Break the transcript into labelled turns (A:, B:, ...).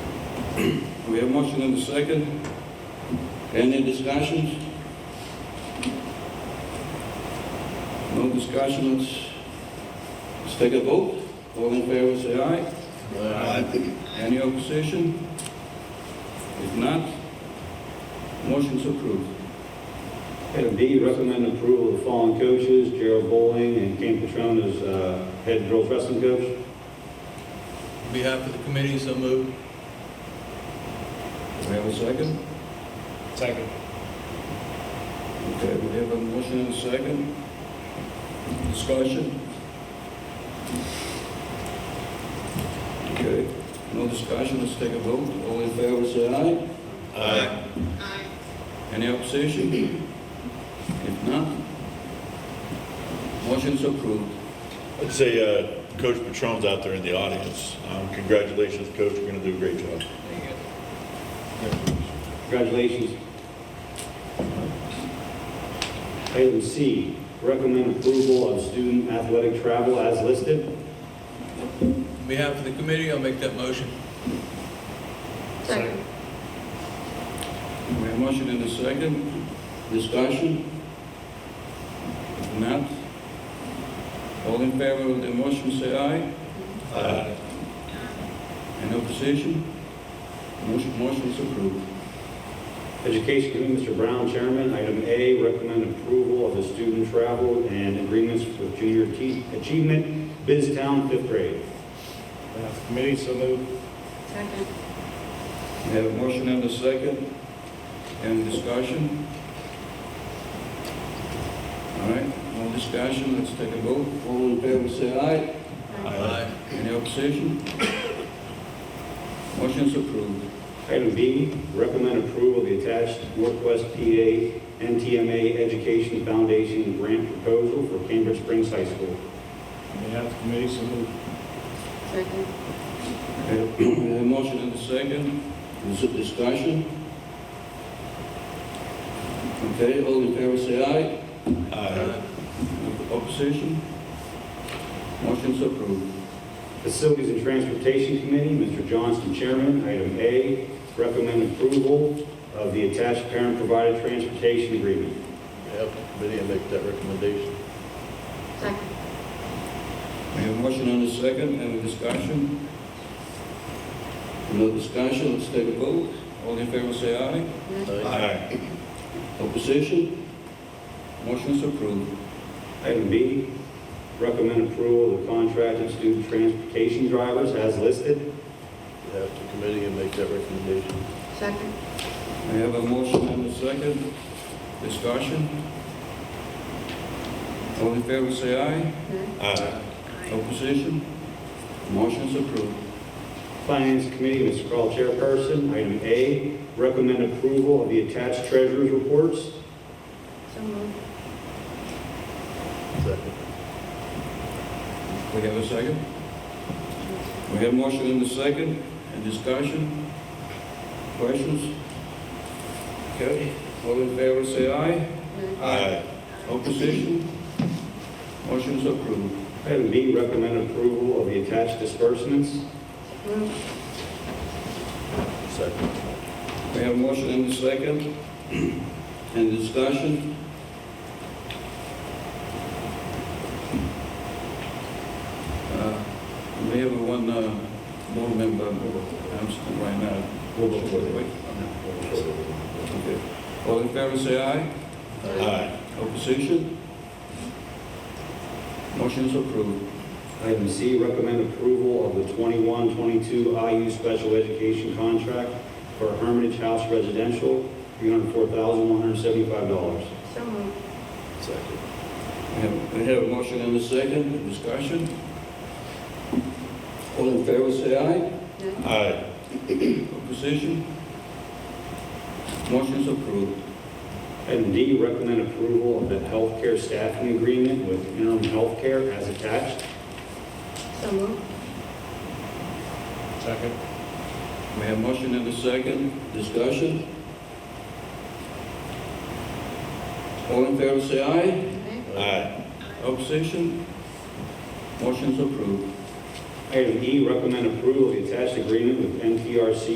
A: We have a motion and a second. Any discussions? No discussions. Let's take a vote. All in favor, say aye. Any opposition? If not, motion's approved.
B: Item D, recommend approval of the following coaches, Gerald Bowling and Ken Patron as uh, head girls wrestling coach.
C: On behalf of the committee, so moved.
A: Do we have a second?
C: Second.
A: Okay, we have a motion and a second. Discussion? Okay, no discussion, let's take a vote. All in favor, say aye.
C: Aye.
A: Any opposition? If not, motion's approved.
D: I'd say uh, Coach Patron's out there in the audience. Um, Congratulations, Coach, you're going to do a great job.
B: Congratulations. Item C, recommend approval of student athletic travel as listed.
C: On behalf of the committee, I'll make that motion.
E: Second.
A: We have a motion and a second. Discussion? If not, all in favor of the motion, say aye.
D: Uh,
A: Any opposition? Motion, motion is approved.
B: Education Committee, Mr. Brown, Chairman. Item A, recommend approval of the student travel and agreements with junior achie- achievement, Biz Town, fifth grade.
D: Committee, so moved.
E: Second.
A: We have a motion and a second. Any discussion? All right, no discussion, let's take a vote. All in favor, say aye.
C: Aye.
A: Any opposition? Motion is approved.
B: Item B, recommend approval of the attached Northwest PA NTMA Education Foundation grant proposal for Cambridge Springs High School.
E: Second.
A: Okay, We have a motion and a second. Is it discussion? Okay, all in favor, say aye.
D: Aye.
A: Opposition? Motion is approved.
B: Facilities and Transportation Committee, Mr. Johnston, Chairman. Item A, recommend approval of the attached parent-provided transportation agreement.
D: Yep, committee, I make that recommendation.
E: Second.
A: We have a motion and a second, any discussion? No discussion, let's take a vote. All in favor say aye.
D: Aye.
A: Opposition? Motion is approved.
B: Item B, recommend approval of the contracted student transportation drivers as listed.
D: Have the committee and make that recommendation.
E: Second.
A: We have a motion and a second, discussion? All in favor say aye.
D: Aye.
A: Opposition? Motion is approved.
B: Finance Committee, Mr. Carl, Chairperson. Item A, recommend approval of the attached treasurer's reports.
E: So moved.
D: Second.
A: We have a second? We have motion in the second, and discussion? Questions? Okay, all in favor say aye.
D: Aye.
A: Opposition? Motion is approved.
B: Item B, recommend approval of the attached disbursements.
E: Moved.
D: Second.
A: We have motion in the second, and discussion? Uh, We have one uh, board member, absent right now. Okay. All in favor say aye.
D: Aye.
A: Opposition? Motion is approved.
B: Item C, recommend approval of the 21-22 IU special education contract for Hermitage House Residential, $304,175.
E: So moved.
D: Second.
A: We have- We have a motion and a second, discussion. All in favor, say aye.
D: Aye.
A: Opposition? Motion is approved.
B: Item D, recommend approval of the healthcare staffing agreement with interim healthcare as attached.
E: So moved.
C: Second.
A: We have motion and a second, discussion. All in favor, say aye.
D: Aye.
A: Opposition? Motion is approved.
B: Item E, recommend approval of the attached agreement with NTRC